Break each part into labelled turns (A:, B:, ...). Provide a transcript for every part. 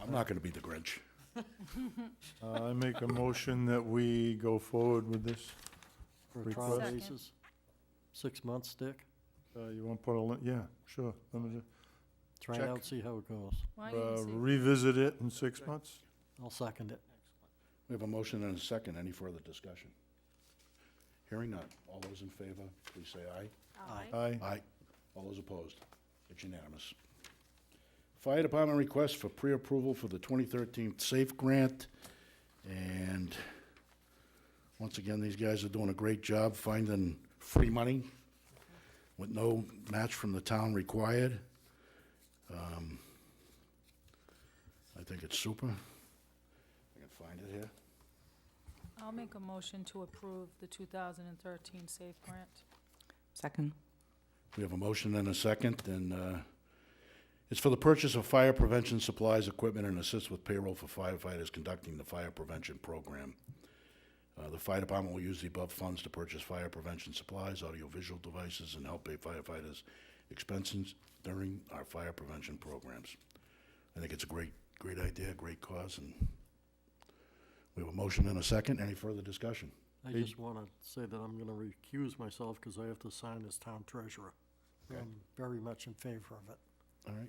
A: I'm not gonna be the Grinch.
B: Uh, I make a motion that we go forward with this.
C: For a trial
B: Request.
D: Second.
C: basis? Six months, Dick?
B: Uh, You want to put a, li- yeah, sure. Let me ju-
C: Try it
B: Check.
C: out, see how it goes.
D: Why don't
B: uh,
D: you see?
B: Revisit it in six months?
C: I'll second it.
A: We have a motion and a second. Any further discussion? Hearing none. All those in favor, please say aye.
C: Aye.
B: Aye.
A: Aye. All those opposed? It's unanimous. Fire Department request for pre-approval for the 2013 SAFE Grant. And once again, these guys are doing a great job finding free money with no match from the town required. Um, I think it's super. I can find it here.
D: I'll make a motion to approve the 2013 SAFE grant.
E: Second.
A: We have a motion and a second, and uh, it's for the purchase of fire prevention supplies, equipment, and assist with payroll for firefighters conducting the fire prevention program. Uh, The fire department will use the above funds to purchase fire prevention supplies, audiovisual devices, and help pay firefighters expenses during our fire prevention programs. I think it's a great, great idea, great cause, and we have a motion and a second. Any further discussion?
C: I
B: Hey.
C: just want to say that I'm going to recuse myself because I have to sign as town treasurer.
A: Okay.
C: I'm very much in favor of it.
A: All right.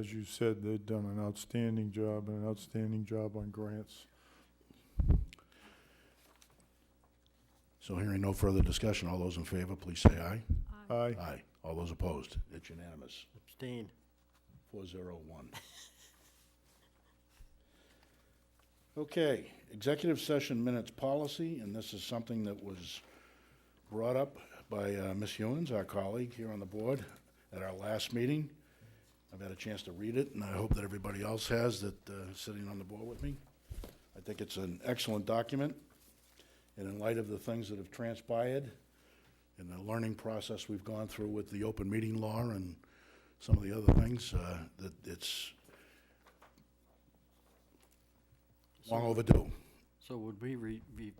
B: As you said, they've done an outstanding job, and an outstanding job on grants.
A: So hearing no further discussion, all those in favor, please say aye.
D: Uh,
B: Aye.
A: Aye. All those opposed? It's unanimous.
C: Abstain.
A: Four zero one. Okay, executive session minutes policy, and this is something that was brought up by uh, Ms. Hewens, our colleague here on the board, at our last meeting. I've had a chance to read it, and I hope that everybody else has that, uh, sitting on the board with me. I think it's an excellent document, and in light of the things that have transpired and the learning process we've gone through with the open meeting law and some of the other things, uh, that it's long overdue.
C: So would we re, be-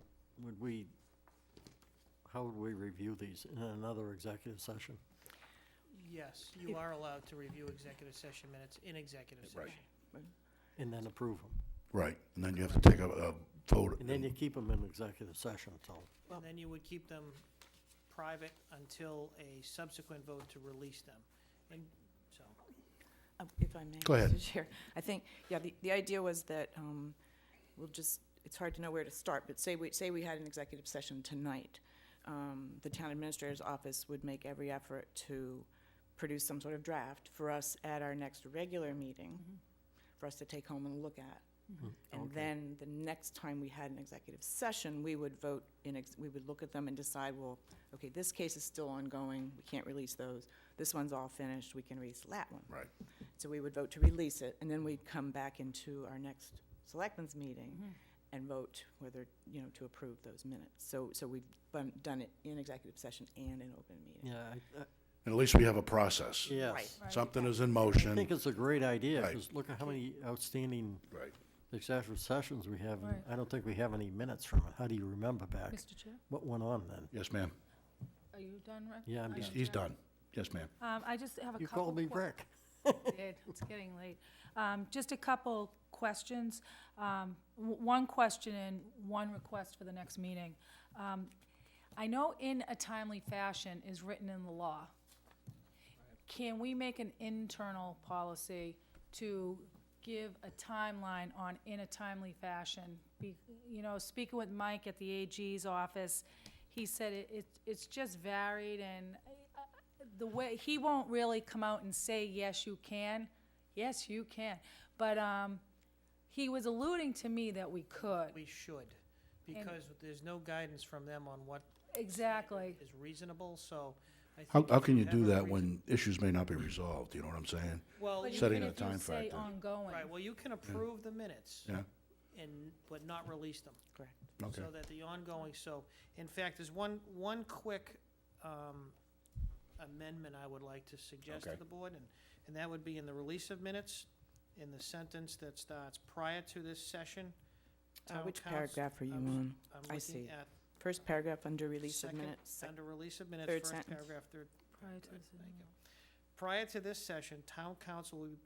C: would we, how would we review these in another executive session?
F: Yes, you are allowed to review executive session minutes in executive
A: Right.
F: session.
C: And then approve them?
A: Right, and then you have to take a, a vote.
C: And then you keep them in executive session until,
F: And then you would keep them private until a subsequent vote to release them. And so,
E: Uh, If I may.
A: Go ahead.
E: Mr. Chair. I think, yeah, the, the idea was that um, we'll just, it's hard to know where to start, but say we, say we had an executive session tonight. um, The town administrator's office would make every effort to produce some sort of draft for us at our next regular meeting, for us to take home and look at. And
C: okay.
E: then the next time we had an executive session, we would vote in, ex- we would look at them and decide, well, okay, this case is still ongoing, we can't release those. This one's all finished, we can release that one.
A: Right.
E: So we would vote to release it, and then we'd come back into our next selectmen's meeting and vote whether, you know, to approve those minutes. So, so we've bun- done it in executive session and in open meeting.
C: yeah, I- I-
A: And At least we have a process.
C: yes.
D: Right.
A: Something is in
C: I
A: motion.
C: think it's a great idea,
A: Right.
C: because look at how many outstanding
A: Right.
C: executive sessions we have. and
D: Right.
C: I don't think we have any minutes from it. How do you remember back?
D: Mr. Chair,
C: What went on then?
A: Yes, ma'am.
D: are you done, Rick?
C: Yeah, I'm
D: Are
A: He's,
C: done.
D: you
A: he's done. Yes, ma'am.
D: Um, I just have a couple.
C: You called me
D: que-
C: Rick.
D: did. It's getting late. Um, Just a couple questions. Um, w- One question and one request for the next meeting. Um, I know in a timely fashion is written in the law. Can we make an internal policy to give a timeline on in a timely fashion? Be- You know, speaking with Mike at the AG's office, he said it, it- it's just varied and uh, the way, he won't really come out and say, yes, you can, yes, you can. But, um, he was alluding to me that we could,
F: we should, because there's no guidance from them on what
D: exactly.
F: is reasonable, so I think.
A: How, how
F: if
A: can you
F: have
A: do
F: a
A: that
F: reason-
A: when issues may not be resolved? You know what I'm saying?
F: Well,
D: But
F: you-
A: Setting
D: even
A: a
D: if you
A: time
D: say
A: factor.
D: Ongoing.
F: right, well, you can approve the minutes
A: Yeah?
F: and, but not release them.
E: Correct.
A: Okay.
F: So that the ongoing, so, in fact, there's one, one quick um, amendment I would like to suggest to
A: Okay.
F: the board, and, and that would be in the release of minutes, in the sentence that starts prior to this session.
E: Uh,
F: town
E: Which
F: council-
E: paragraph are you
F: I was-
E: on?
F: I'm
E: I
F: looking
E: see.
F: at
E: First paragraph under release of
F: second-
E: minutes. sec-
F: Under release of minutes,
E: third
F: first
E: sentence.
F: paragraph, third
D: Prior to this,
F: Prior to this session, town council will be